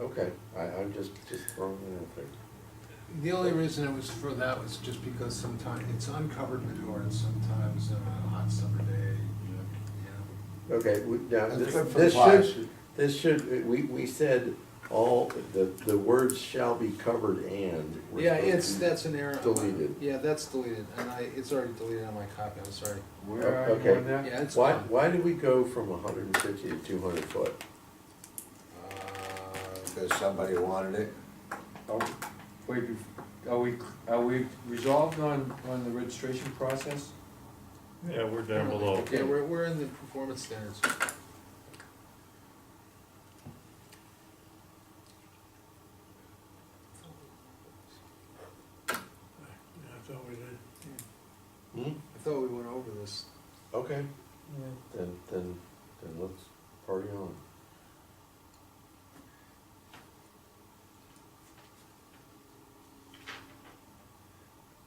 Okay, I, I'm just, just throwing it out there. The only reason it was for that was just because sometimes it's uncovered manure and sometimes on a hot summer day, you Okay, we, now, That's this, good for this the pies. should, this should, we, we said all, the, the words shall be covered and. were know. Yeah, supposed it's, to- that's an error. on my- Deleted. Yeah, that's deleted, and I, it's already deleted on my copy, I'm sorry. Where are you Okay. on that? Yeah, it's Why, gone. why did we go from hundred and fifty to two hundred foot? Uh, Because somebody wanted it. Are- Oh, Wait, bef- are we, are we resolved on, on the registration process? Yeah, we're down below. Yeah, we're, we're in the performance standards. I thought we did. I thought we went over this. Hmm, Okay. Then, then, then let's party on.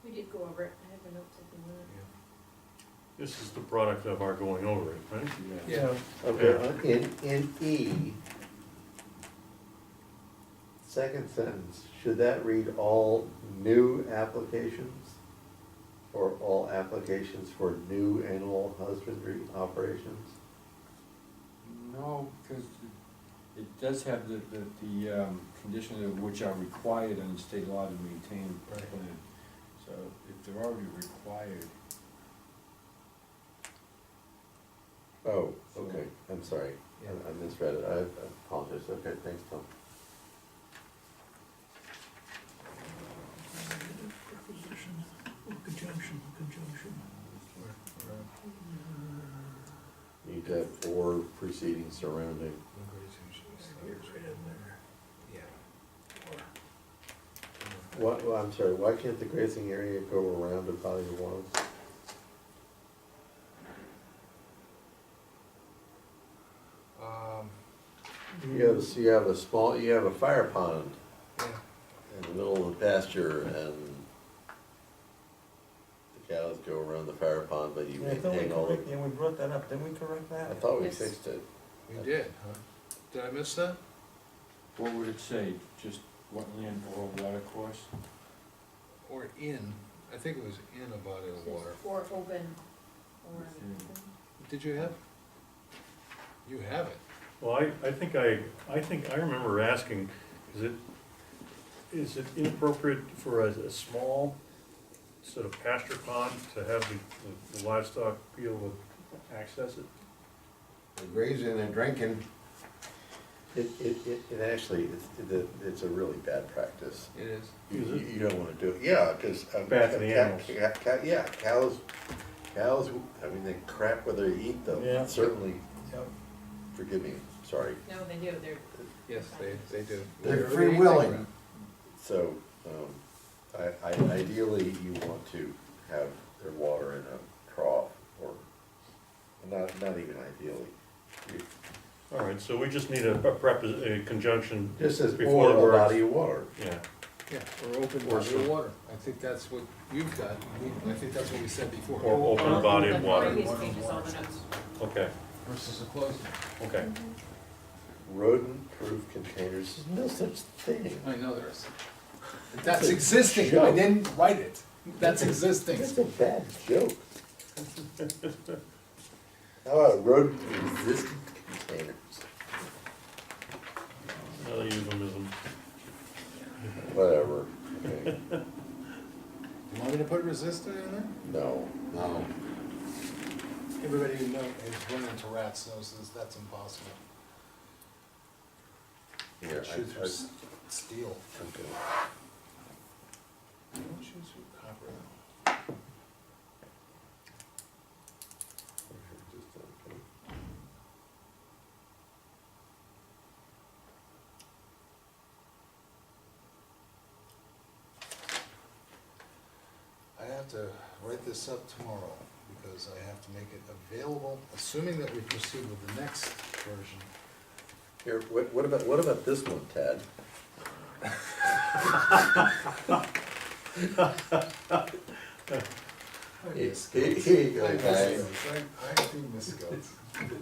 We did go over it, I have a note taken with it. This is the product of our going over it, right? Yeah. Okay, in, in E, second sentence, should that read all new applications? Or all applications for new animal husbandry operations? No, because it does have the, the, the, um, condition of which are required under state law to maintain a Right. plan. So if they're already required, Oh, okay, I'm sorry, I I misread it, I I apologize, okay, thanks, Tom. Preposition, or conjunction, conjunction. Need to have or preceding surrounding. Yeah. What, well, I'm sorry, why can't the grazing area go around a body of water? Um, You have, so you have a small, you have a fire pond yeah. in the middle of the pasture and the cows go around the fire pond, but you Yeah, I thought we hang all correct, the, yeah, we brought that up, didn't we correct that? I thought we Yes. fixed it. We did, huh? Did I miss that? what would it say? Just wetland or water course? Or in, I think it was in a body of water. Or open, or. Did you have? You have it. Well, I, I think I, I think, I remember asking, is it, is it inappropriate for a, a small sort of pasture pond to have the- the livestock be able to access it? They're grazing and drinking. It, it, it, it actually, it's, the, it's a really bad practice. It is. You, Is it? you- you don't wanna do it, yeah, cause. um, Bad for the ca- animals. ca- ca- Yeah, cows, cows, I mean, they crap whether you eat Yeah. them, certainly, Yep. forgive me, sorry, No, they do, they're, Yes, they, they do. They're Whatever free they willing. think So, um, I, I, ideally, you want to have their water in a trough, or, not, not even ideally. You- All right, so we just need a prepos, a conjunction. Just as before or the a words. body of water. Yeah, about it. Yeah, or open Or body of so. water. I think that's what you've got. I think that's what we said before. Or open Well, body of the water. previous page is all the notes. okay, Versus a closed one. okay. Rodent-proof containers, there's no such thing. I know there is. That's existing. I joke. didn't write it. That's existing. That's a bad joke. How about rodent-resistant containers? Another euphemism. Whatever, okay, You want me to put resistant in there? no. No. Everybody who knows has run into rats knows this, that's impossible. Here, I- Shoot I- through s- steel. I'm gonna- Don't shoot through copper. uh, I have to write this up tomorrow because I have to make it available, assuming that we proceed with the next version. Here, what, what about, what about this one, Tad? It's- Here you go, I miss guys. goats. I, I do miss goats.